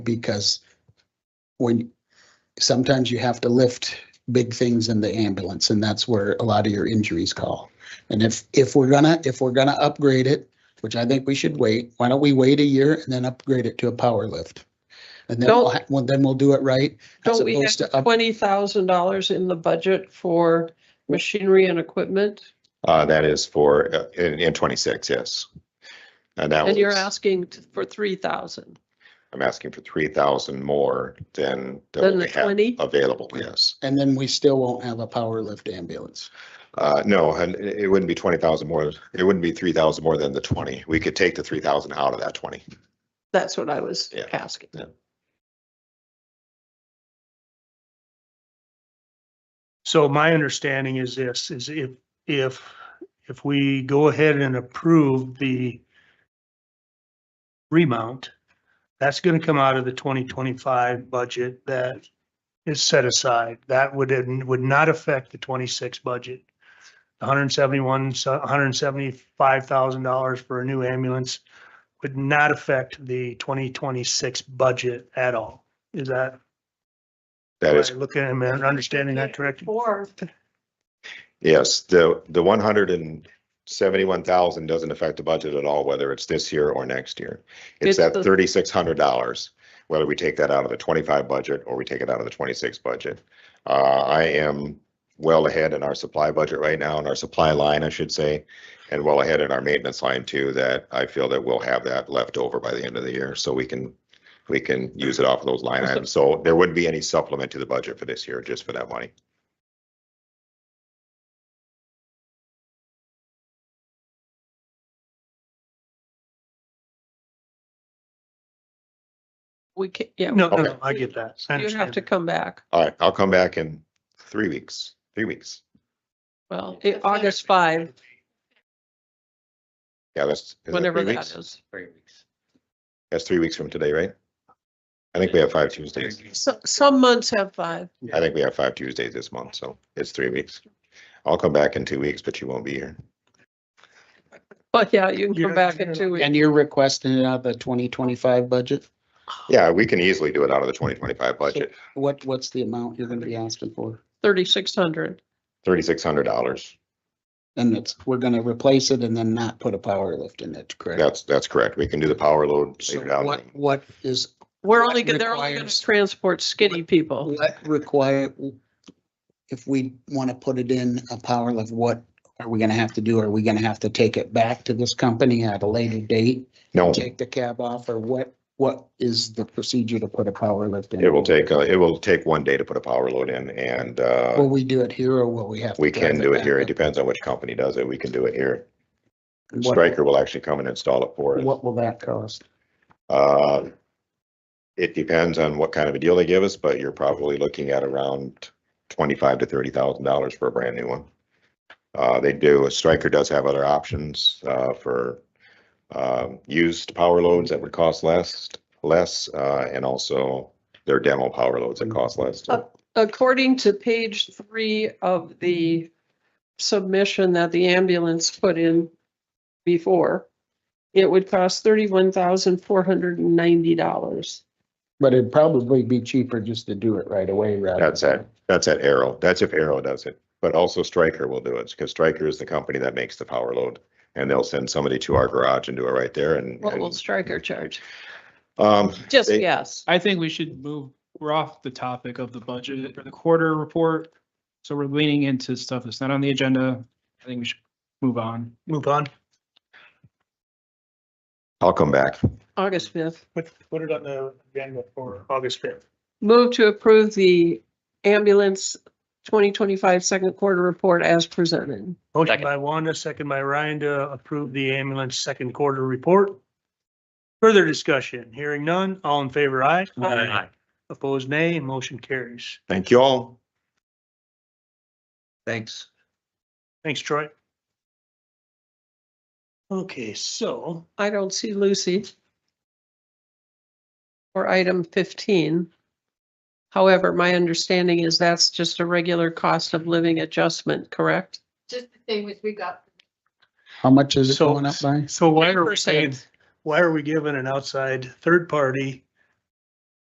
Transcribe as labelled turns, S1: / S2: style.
S1: because when, sometimes you have to lift big things in the ambulance, and that's where a lot of your injuries call. And if, if we're gonna, if we're gonna upgrade it, which I think we should wait, why don't we wait a year and then upgrade it to a power lift? And then, we'll
S2: Don't-
S1: ha- well, then we'll do it right. as
S2: Don't we
S1: opposed to
S3: Uh,
S2: have
S1: up-
S2: twenty thousand dollars in the budget for machinery and equipment?
S3: Uh, that is for, uh, in, in twenty-six, yes. And that
S2: And you're
S3: was,
S2: asking t- for three thousand,
S3: I'm asking for three thousand more than,
S2: then
S3: than what
S2: the
S3: we have
S2: twenty?
S3: available, yes.
S1: And then we still won't have a power lift ambulance.
S3: Uh, no, and it, it wouldn't be twenty thousand more, it wouldn't be three thousand more than the twenty. We could take the three thousand out of that twenty.
S2: That's what I was
S3: Yeah.
S2: asking.
S3: Yeah.
S4: So my understanding is this, is if, if, if we go ahead and approve the remount, that's gonna come out of the twenty twenty-five budget that is set aside. That would, would not affect the twenty-six budget. hundred and seventy-one, hundred and seventy-five thousand dollars for a new ambulance would not affect the twenty twenty-six budget at all. Is that,
S3: That
S4: am
S3: is,
S4: I looking, am I understanding that correctly?
S2: Or,
S3: yes, the, the one hundred and seventy-one thousand doesn't affect the budget at all, whether it's this year or next year.
S2: It's
S3: It's that
S2: the-
S3: thirty-six hundred dollars, whether we take that out of the twenty-five budget or we take it out of the twenty-six budget. Uh, I am well ahead in our supply budget right now, in our supply line, I should say, and well ahead in our maintenance line too, that I feel that we'll have that left over by the end of the year, so we can, we can use it off of those line
S2: So-
S3: items. So there wouldn't be any supplement to the budget for this year, just for that money.
S2: we can, yeah,
S4: No, no,
S3: Okay.
S4: no, I get that. I
S2: you have
S4: understand.
S2: to come back.
S3: All right, I'll come back in three weeks, three weeks.
S2: Well, i- August five,
S3: Yeah, that's. is that
S2: whenever
S3: three
S2: that
S3: weeks?
S2: is.
S5: Three weeks.
S3: That's three weeks from today, right? I think we have five Tuesdays.
S2: So, some months have five.
S3: I think we have five Tuesdays this month, so it's three weeks. I'll come back in two weeks, but you won't be here.
S2: Well, yeah, you can
S4: You're
S2: come
S4: not-
S2: back
S4: you're
S2: in
S4: not-
S2: two weeks.
S1: And you're requesting it out of the twenty twenty-five budget?
S3: Yeah, we can easily do it out of the twenty twenty-five budget,
S1: What, what's the amount you're gonna be asking for?
S2: Thirty-six hundred.
S3: thirty-six hundred dollars.
S1: And it's, we're gonna replace it and then not put a power lift in it, correct?
S3: That's, that's correct. We can do the power load
S1: So
S3: later down.
S1: What, what is,
S2: We're
S1: What
S2: only, go- they're only gonna
S1: requires-
S2: transport skinny people.
S1: what require, if we want to put it in a power lift, what are we gonna have to do? Are we gonna have to take it back to this company at a later date?
S3: No,
S1: Take the cab off or what, what is the procedure to put a power lift in?
S3: it will take, uh, it will take one day to put a power load in and, uh,
S1: Will we do it here or will we have? to
S3: we
S1: drive
S3: can do it
S1: back
S3: here. It
S1: up?
S3: depends on which company does it. We can do it here.
S1: What-
S3: Stryker will actually come and install it for us.
S1: What will that cost?
S3: Uh, It depends on what kind of a deal they give us, but you're probably looking at around twenty-five to thirty thousand dollars for a brand new one. Uh, They do, Stryker does have other options uh, for um, used power loads that would cost less, less, uh, and also their demo power loads that cost less.
S2: Uh, According to page three of the submission that the ambulance put in before, it would cost thirty-one thousand four hundred and ninety dollars.
S1: But it'd probably be cheaper just to do it right away rather.
S3: That's
S1: than-
S3: at, that's at Arrow. That's if Arrow does it. But also Stryker will do it because Stryker is the company that makes the power load. And they'll send somebody to our garage and do it right there and.
S2: What will
S3: and,
S2: Stryker charge?
S3: Um,
S2: Just
S3: They-
S2: yes.
S5: I think we should move, we're off the topic of the budget or the quarter report. So we're leaning into stuff that's not on the agenda. I think we should move on.
S4: Move on.
S3: I'll come back.
S2: August fifth.
S4: Put, put it on the agenda for August fifth.
S2: Move to approve the ambulance twenty twenty-five second quarter report as presented.
S4: Motion
S6: Second.
S4: by Wanda, second by Ryan to approve the ambulance second quarter report. Further discussion, hearing none, all in favor, aye.
S6: Aye.
S4: Opposed, nay, motion carries.
S3: Thank you all.
S6: Thanks.
S4: Thanks, Troy. Okay, so
S2: I don't see Lucy. For item fifteen. However, my understanding is that's just a regular cost of living adjustment, correct?
S7: just the same as we got
S1: How much is it
S4: So-
S1: going up by?
S4: So why are we
S2: 10%.
S4: paying, why are we giving an outside third party